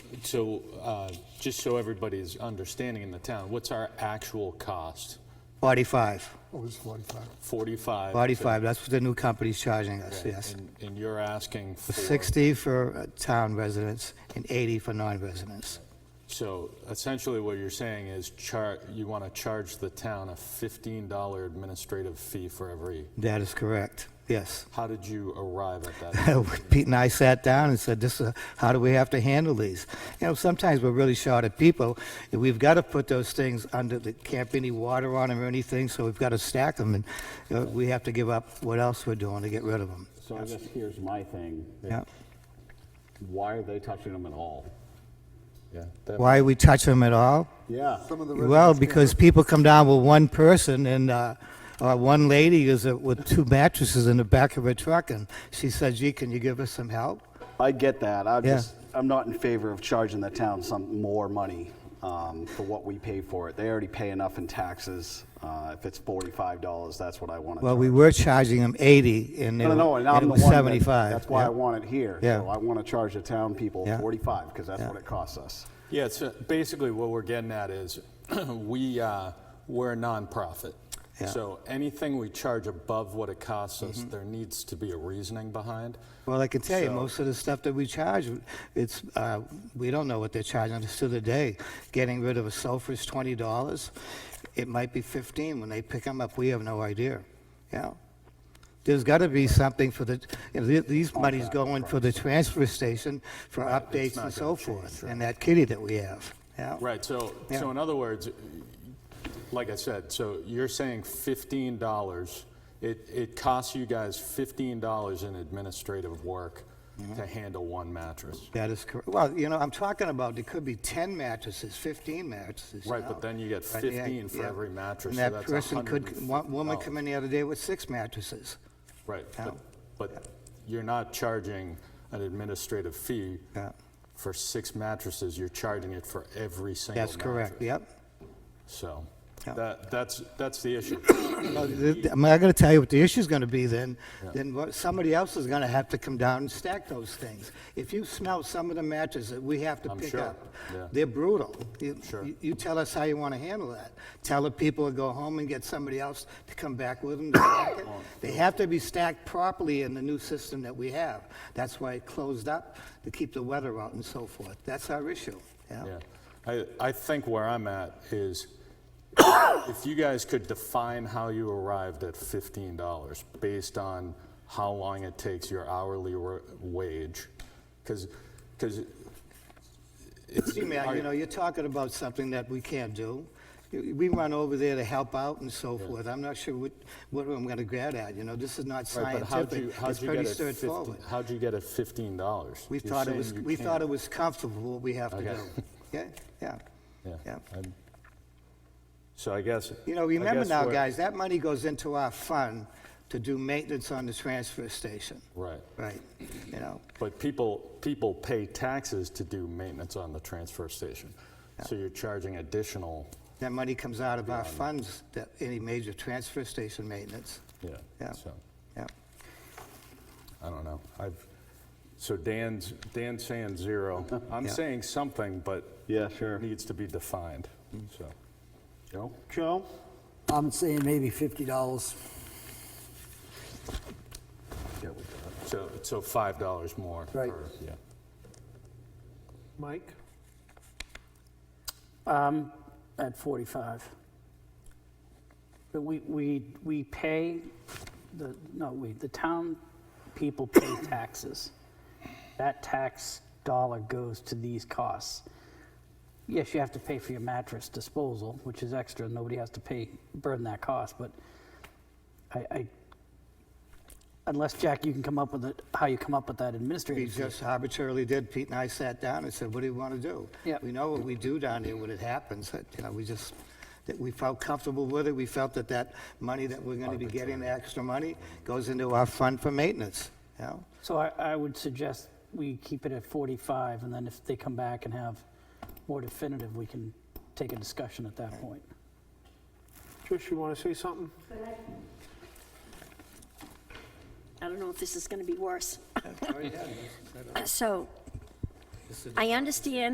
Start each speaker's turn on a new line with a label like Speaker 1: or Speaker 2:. Speaker 1: so, uh, just so everybody's understanding in the town, what's our actual cost?
Speaker 2: 45,
Speaker 3: Oh, it was 45.
Speaker 1: 45?
Speaker 2: 45, that's what the new company's charging us,
Speaker 1: Okay,
Speaker 2: yes.
Speaker 1: and- And you're asking for?
Speaker 2: 60 for uh, town residents and 80 for non-residents.
Speaker 1: So essentially what you're saying is char, you want to charge the town a $15 administrative fee for every,
Speaker 2: That is correct, yes.
Speaker 1: how did you arrive at that?
Speaker 2: Pete and I sat down and said, "This, is how do we have to handle these?" You know, sometimes we're really short of people. and We've got to put those things under. There can't be any water on them or anything, so we've got to stack them, and you know, we have to give up what else we're doing to get rid of them.
Speaker 4: So I guess here's my thing.
Speaker 2: Yeah.
Speaker 4: Why are they touching them at all?
Speaker 1: Yeah, that-
Speaker 2: Why we touch them at all?
Speaker 4: Yeah.
Speaker 3: Some of the
Speaker 2: Well,
Speaker 3: residents can't-
Speaker 2: because people come down with one person and, uh, uh, one lady is uh, with two mattresses in the back of her truck and she said, gee, can you give us some help?
Speaker 5: I get that. I
Speaker 2: Yeah.
Speaker 5: just, I'm not in favor of charging the town some more money um, for what we pay for it. They already pay enough in taxes. Uh, If it's $45, that's what I want to
Speaker 2: Well,
Speaker 5: charge.
Speaker 2: we were charging them 80 and they
Speaker 5: No,
Speaker 2: were-
Speaker 5: no, no, and
Speaker 2: and
Speaker 5: I'm
Speaker 2: it
Speaker 5: the
Speaker 2: was
Speaker 5: one that-
Speaker 2: 75.
Speaker 5: That's why I
Speaker 2: yeah.
Speaker 5: want it here.
Speaker 2: Yeah.
Speaker 5: So I want to charge the town people
Speaker 2: Yeah.
Speaker 5: 45, because that's
Speaker 2: Yeah.
Speaker 5: what it costs us.
Speaker 1: Yeah, so basically what we're getting at is, we, uh, we're a nonprofit.
Speaker 2: Yeah. Mm-hmm.
Speaker 1: So anything we charge above what it costs us, there needs to be a reasoning behind.
Speaker 2: Well, I can tell you,
Speaker 1: So-
Speaker 2: most of the stuff that we charge, it's, uh, we don't know what they're charging us to the day. Getting rid of a sulfur is $20. It might be 15 when they pick them up. We have no idea. Yeah. There's got to be something for the, you know, th- these monies going for the transfer station for updates and so forth, and that kitty that we have. Yeah.
Speaker 1: Right, so,
Speaker 2: Yeah.
Speaker 1: so in other words, like I said, so you're saying fifteen dollars, it, it costs you guys fifteen dollars in administrative work
Speaker 2: Mm-hmm.
Speaker 1: to handle one mattress.
Speaker 2: That is correct. Well, you know, I'm talking about, there could be 10 mattresses, 15 mattresses. you
Speaker 1: Right, but
Speaker 2: know.
Speaker 1: then you get
Speaker 2: Right, yeah,
Speaker 1: 15 for
Speaker 2: yeah.
Speaker 1: every mattress,
Speaker 2: And
Speaker 1: so
Speaker 2: that
Speaker 1: that's
Speaker 2: person could,
Speaker 1: $150.
Speaker 2: one woman come in the other day with six mattresses.
Speaker 1: Right,
Speaker 2: Yeah.
Speaker 1: but, but you're not charging an administrative fee
Speaker 2: Yeah.
Speaker 1: for six mattresses, you're charging it for every single
Speaker 2: That's
Speaker 1: mattress.
Speaker 2: correct, yep.
Speaker 1: So,
Speaker 2: Yeah.
Speaker 1: that, that's, that's the issue.
Speaker 2: Well, th- th- I'm not gonna tell you what the issue's gonna be then, then what- somebody else is gonna have to come down and stack those things. If you smell some of the matches that we have to
Speaker 1: I'm
Speaker 2: pick
Speaker 1: sure,
Speaker 2: up,
Speaker 1: yeah.
Speaker 2: they're brutal. You-
Speaker 1: Sure.
Speaker 2: you- You tell us how you wanna handle that. Tell the people to go home and get somebody else to come back with them to stack
Speaker 1: Oh,
Speaker 2: it. They have to be stacked properly in the new system that we have. That's why it closed up, to keep the weather out and so forth. That's our issue,
Speaker 1: Yeah, I, I think where I'm at is, if you guys could define how you arrived at fifteen dollars based on how long it takes your hourly wa- wage, because, because
Speaker 2: See, Matt, you know, you're talking about something that we can't do. You- We run over there to help out and so forth. I'm not sure what, what I'm gonna grab at, you know, this is not
Speaker 1: Right, but how'd you,
Speaker 2: scientific.
Speaker 1: how'd
Speaker 2: It's
Speaker 1: you get
Speaker 2: pretty
Speaker 1: it fifteen,
Speaker 2: straightforward.
Speaker 1: how'd you get it fifteen dollars?
Speaker 2: We thought it was, we thought it was comfortable, what we have to
Speaker 1: Okay.
Speaker 2: do. Yeah, yeah, yeah.
Speaker 1: So I guess.
Speaker 2: You
Speaker 1: I
Speaker 2: know, remember
Speaker 1: guess
Speaker 2: now,
Speaker 1: we're-
Speaker 2: guys, that money goes into our fund to do maintenance on the transfer station,
Speaker 1: Right,
Speaker 2: right? You know,
Speaker 1: but people, people pay taxes to do maintenance on the transfer station. So you're charging additional,
Speaker 2: that money comes out of our funds, that, any major transfer station maintenance,
Speaker 1: yeah,
Speaker 2: Yeah.
Speaker 1: so,
Speaker 2: yeah.
Speaker 1: I don't know. I've, so Dan's, Dan's saying zero. I'm
Speaker 2: Yeah.
Speaker 1: saying something, but.
Speaker 5: Yeah, sure.
Speaker 1: Needs to be defined, so.
Speaker 5: Joe? Joe?
Speaker 6: I'm saying maybe fifty dollars.
Speaker 1: So, so five dollars more.
Speaker 6: Right.
Speaker 1: per- Yeah.
Speaker 7: Mike?
Speaker 6: Um, at forty-five. But we, we, we pay, the, no, we, the town people pay taxes. That tax dollar goes to these costs. Yes, you have to pay for your mattress disposal, which is extra, nobody has to pay, burden that cost, but I, I, unless, Jack, you can come up with it, how you come up with that
Speaker 2: We
Speaker 6: administrative fee.
Speaker 2: just arbitrarily did, Pete and I sat down and said, what do you want to do?
Speaker 6: Yeah.
Speaker 2: We know what we do down there when it happens, that, you know, we just, that we felt comfortable with it, we felt that that money that we're going to be getting, the extra money, goes into our fund for maintenance, you know?
Speaker 6: So I, I would suggest we keep it at 45, and then if they come back and have more definitive, we can take a discussion at that point.
Speaker 7: Trish, you want to say something?
Speaker 8: I don't know if this is going to be worse. So, I understand